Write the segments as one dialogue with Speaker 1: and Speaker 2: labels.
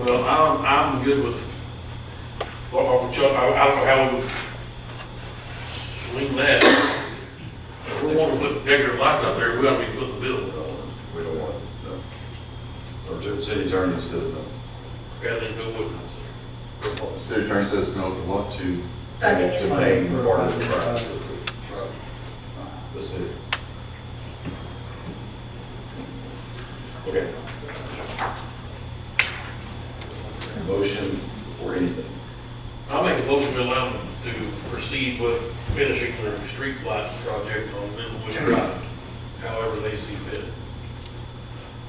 Speaker 1: I'm, I'm good with, well, Uncle Chuck, I, I don't know how we would swing that. If we want to put bigger lights up there, we gotta be footing the bill,
Speaker 2: We don't want, no. Or the city attorney says no.
Speaker 1: rather than go with it.
Speaker 2: The City attorney says no to what, to?
Speaker 3: Funding it.
Speaker 2: To paying part of the price. The city. Okay. Motion or anything?
Speaker 1: I'll make a motion to allow them to proceed with finishing their street lights project on Millwood Drive, however they see fit.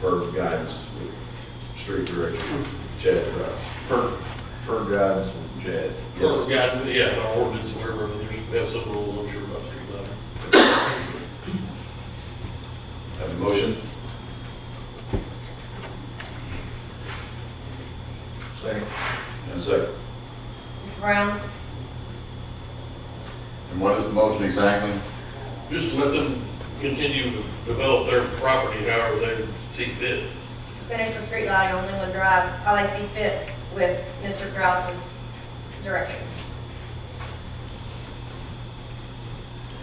Speaker 2: per guidance with street director, Chad Brown.
Speaker 4: Per, per guidance from Chad.
Speaker 1: Or, yeah, yeah, our ordinance, whatever, there's, we have some rules, I'm sure, about street lighting.
Speaker 2: Have a motion?
Speaker 4: Second.
Speaker 2: And a second.
Speaker 3: Mr. Brown?
Speaker 2: And what is the motion exactly?
Speaker 1: Just let them continue to develop their property however they see fit.
Speaker 3: Finish the street lighting on Linwood Drive, how they see fit with Mr. Grouse's direction.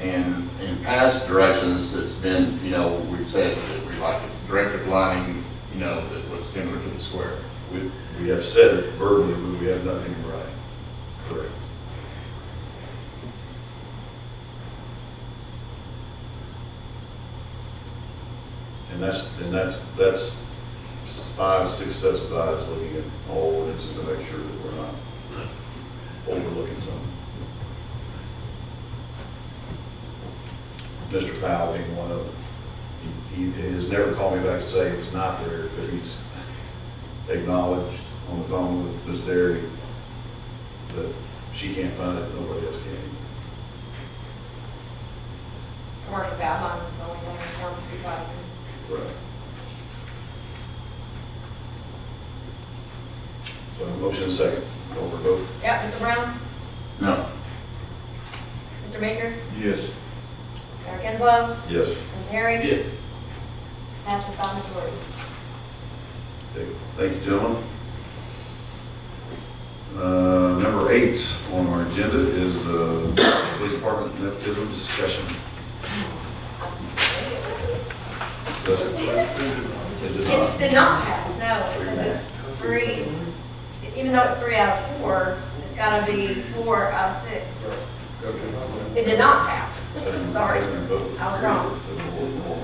Speaker 5: And in past directions, it's been, you know, we've said that we like directed lining, you know, that was similar to the square.
Speaker 2: We, we have said it verbally, but we have nothing in writing. Correct. And that's, and that's, that's five, six sets of eyes looking at all ordinances to make sure that we're not overlooking something. Mr. Powell being one of them. He, he has never called me back to say it's not there, but he's acknowledged on the phone with Ms. Derry that she can't find it, nobody else can.
Speaker 3: Commercial guidelines is the only thing on town street lighting.
Speaker 2: Right. So a motion and a second, over vote.
Speaker 3: Yep, Mr. Brown?
Speaker 5: No.
Speaker 3: Mr. Baker?
Speaker 4: Yes.
Speaker 3: Mayor Kinslow?
Speaker 2: Yes.
Speaker 3: Mr. Terry?
Speaker 1: Yeah.
Speaker 3: Passes by majority.
Speaker 2: Thank you, gentlemen. Uh, Number eight on our agenda is the police department nepotism discussion. Does it? It did
Speaker 3: It
Speaker 2: not.
Speaker 3: did not pass, no, because it's three, even though it's three out of four, it's gotta be four out of six. It did not pass, sorry. I was wrong.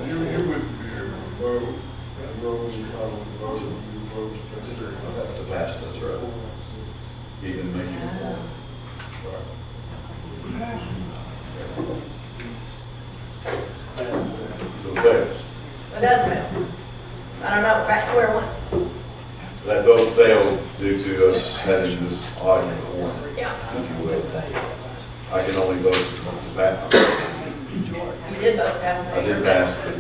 Speaker 6: You, you wouldn't be here to vote, and Rose, you probably voted, you voted.
Speaker 2: To pass, that's right. He didn't make it. Right. So fails.
Speaker 3: So it does fail. I don't know, back to square one.
Speaker 2: That vote failed due to us having this odd quorum,
Speaker 3: Yeah,
Speaker 2: if you will. I can only vote to pass.
Speaker 3: you did vote, that's.
Speaker 2: I did pass, but.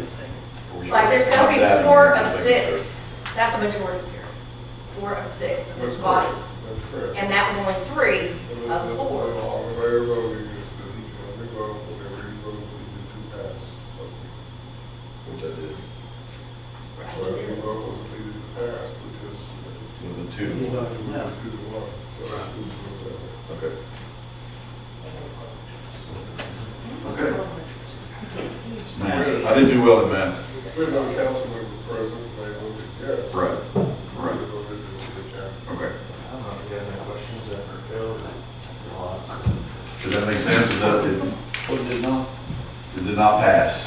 Speaker 3: Like, there's gotta
Speaker 2: That
Speaker 3: be
Speaker 2: and
Speaker 3: four of
Speaker 2: nothing,
Speaker 3: six, that's a majority here, four of six of this body,
Speaker 6: That's correct.
Speaker 3: and that was only three
Speaker 6: And the-
Speaker 3: of
Speaker 6: the-
Speaker 3: four.
Speaker 6: All the way of voting is that, you know, we vote, whatever you vote, we did to pass, so.
Speaker 2: Which I did,
Speaker 3: Right, you
Speaker 6: Whatever you
Speaker 3: did.
Speaker 6: vote was needed to pass, because
Speaker 2: with the two. to one.
Speaker 6: it was two to one, so. it's two to one.
Speaker 2: Okay. Okay. I didn't do well in math.
Speaker 6: We had no council member present, they voted yes.
Speaker 2: Right, right.
Speaker 6: They voted to the council.
Speaker 2: Okay.
Speaker 7: I don't know if you guys have any questions after Phil,
Speaker 2: Does that make sense? It does- It
Speaker 4: What Oh, did not?
Speaker 2: it did not pass.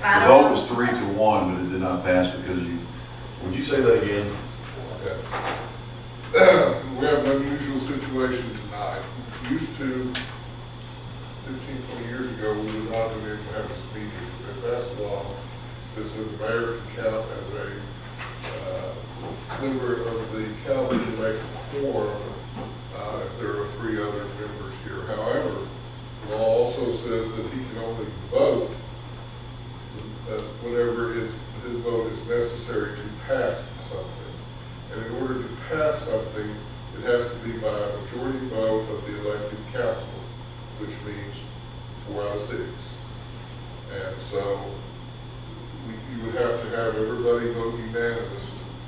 Speaker 2: The
Speaker 3: I
Speaker 2: vote
Speaker 3: don't,
Speaker 2: was three to one, but it did not pass because you, would you say that again?
Speaker 6: Yes. We have an unusual situation tonight. Used to, 15, 20 years ago, we would not have been able to have this meeting. But that's the law, is that the mayor can count as a uh, member of the council to make a quorum uh,